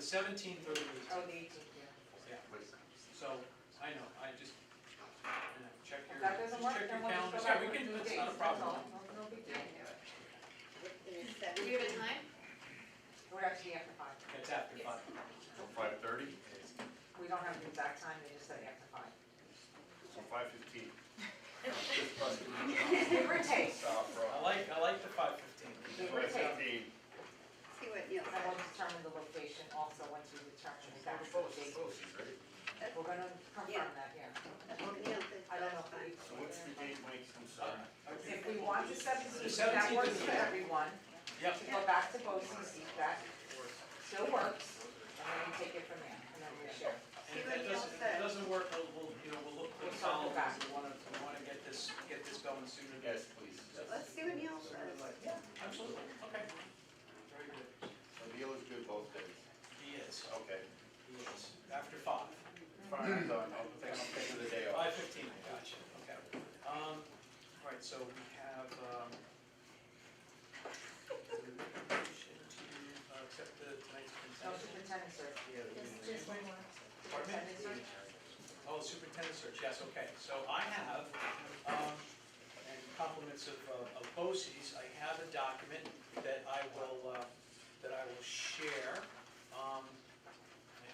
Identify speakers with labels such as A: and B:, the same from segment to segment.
A: seventeenth or the eighteenth.
B: Oh, the eighteenth, yeah.
A: Yeah, so, I know, I just, you know, check your,
B: If that doesn't
A: just
B: work,
A: check your
B: then we'll just go
A: calendar, sorry,
B: back with two
A: we can,
B: days.
A: it's not a
B: That's all.
A: problem.
B: No, no big deal.
C: Do we have a time?
B: We're actually after five.
A: That's after
C: Yes.
A: five.
D: Till five thirty,
B: We don't have the exact time, they just said after five.
D: till five fifteen.
B: Give or take.
A: I like, I like the five fifteen.
B: Give or take.
C: See what Neil
B: And we'll
C: said.
B: determine the location also once we determine the exact
D: Oh,
B: date. We're gonna confirm that, yeah.
C: That's what Neil said.
B: I don't know. if we-
D: So what's the date, Mike, I'm
A: Uh,
D: sorry?
B: If we want the
A: The
B: seventeenth,
A: 17th
B: that
A: is
B: works for
A: okay.
B: everyone,
A: Yep,
B: to go back to BOCES, that still works, and then we take it from there, and then we share.
A: and if
C: what
A: that
C: Neil
A: doesn't, if
C: said.
A: it doesn't work, we'll, we'll, you know, we'll look for
B: We'll circle
A: the
B: back.
A: we wanna, we wanna get this, get this going sooner. than-
D: Yes, please.
C: Let's see what Neil says.
A: Yeah, absolutely, okay. Very good.
D: So Neil is good both days.
A: He is,
D: Okay.
A: he is, after five.
D: Fine, I'm done, I'll take, I'll take the day off.
A: Five fifteen, I got you, okay. Um, all right, so we have, um, motion to uh, accept the tonight's
B: No
A: consent.
B: superintendent search.
A: Pardon me?
B: Superintendent search.
A: Oh, superintendent search, yes, okay. So I have, um, and compliments of, uh, of BOCES, I have a document that I will, uh, that I will share. Um,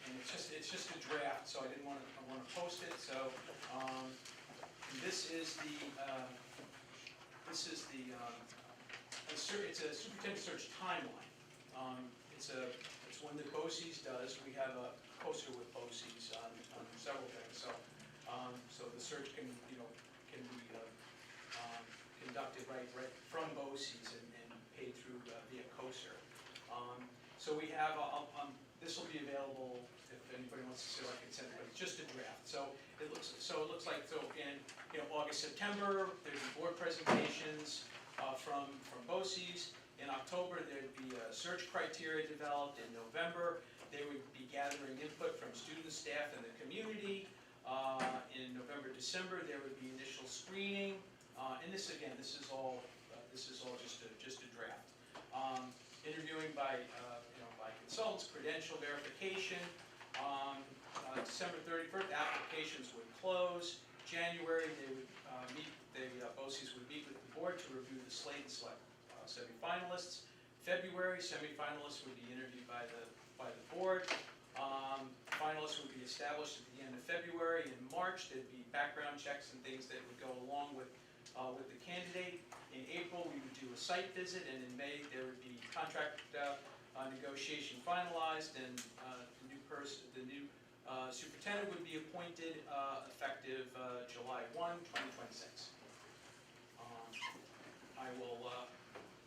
A: and it's just, it's just a draft, so I didn't wanna, I wanna post it, so, um, this is the, uh, this is the, um, a ser- it's a superintendent search timeline. Um, It's a, it's one that BOCES does, we have a poster with BOCES on, on several things, so, um, so the search can, you know, can be, uh, um, conducted right, right from BOCES and, and paid through uh, via COSER. Um, So we have, uh, um, this will be available if anybody wants to see like consent, but it's just a draft, so it looks, so it looks like, so in, you know, August, September, there'd be board presentations, uh, from, from BOCES. In October, there'd be a search criteria developed. In November, they would be gathering input from students, staff, and the community. Uh, In November, December, there would be initial screening. Uh, And this, again, this is all, uh, this is all just a, just a draft. Um, Interviewing by, uh, you know, by consultants, credential verification. Um, uh, December 31st, applications would close. January, they would uh, meet, the uh, BOCES would meet with the board to review the slate and select uh, semifinalists. February, semifinalists would be interviewed by the, by the board. Um, Finalists would be established at the end of February. In March, there'd be background checks and things that would go along with, uh, with the candidate. In April, we would do a site visit, and in May, there would be contract uh, uh, negotiation finalized, and uh, the new person, the new uh, Superintendent would be appointed uh, effective uh, July 1, 2026. Um, I will, uh,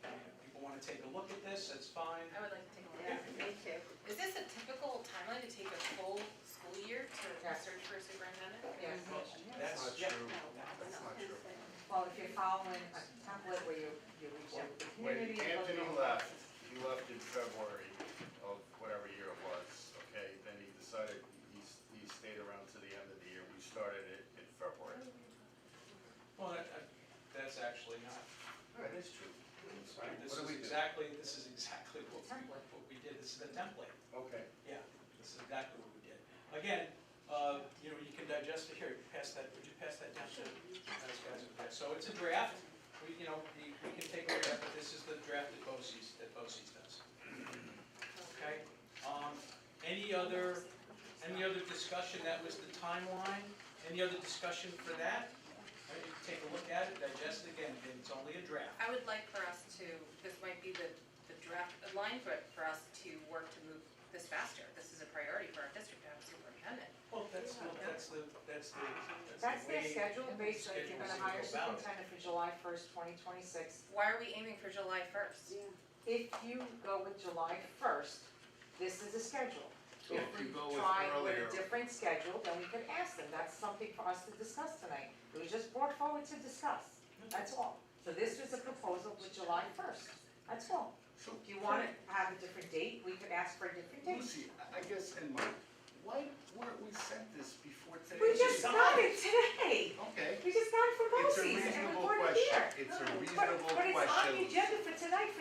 A: if people want to take a look at this, that's fine.
E: I would like to take a look
C: Yeah,
E: at it.
C: me too.
E: Is this a typical timeline to take a full school year to
B: Yes.
E: search for a superintendent?
B: Yes.
A: Well, That's, yeah,
C: No,
D: That's
C: no,
D: not true.
B: Well, if you're following a template where you, you reach out to the community. and
D: When
B: look
D: Anthony
B: at-
D: left, he left in February of whatever year it was, okay? Then he decided, he, s- he stayed around to the end of the year, we started it in February.
A: well, that- that- that's actually not,
D: That is true. Right,
A: this is
D: what do we do?
A: exactly, this is exactly what we,
B: Template.
A: what we did, this is the template.
D: Okay.
A: Yeah, this is exactly what we did. Again, uh, you know, you can digest it here, pass that, would you pass that down to those guys over there? So it's a draft, we, you know, we we can take a look at, but this is the draft that BOCES, that BOCES does. Okay? Um, Any other, any other discussion, that was the timeline, any other discussion for that? All right, you can Take a look at it, digest it again, and it's only a draft.
E: I would like for us to, this might be the, the draft line, but for us to work to move this faster. This is a priority for our district to have a superintendent.
A: Well, that's, the- that's the, that's the,
B: That's
A: that's the
B: their
A: way.
B: schedule, basically, if you're gonna
A: Schedule
B: hire
A: is to go about it.
B: superintendent for July first, twenty twenty-six,
E: Why are we aiming for July first?
C: Yeah.
B: if you go with July first, this is the schedule.
D: So if you go with
B: Try
D: earlier-
B: with a different schedule, then we could ask them, that's something for us to discuss tonight, it was just brought forward to discuss, that's all. So this was a proposal with July first, that's all.
D: So
B: If you wanna have a different date, we could ask for a different date.
D: Lucy, I- I guess, and Mike, why weren't we sent this before today?
B: We just got it today,
D: Okay.
B: we just got it from
D: It's a
B: BOCES, and we
D: reasonable
B: brought it here.
D: question, it's a reasonable question.
B: But, but it's on the agenda for tonight, for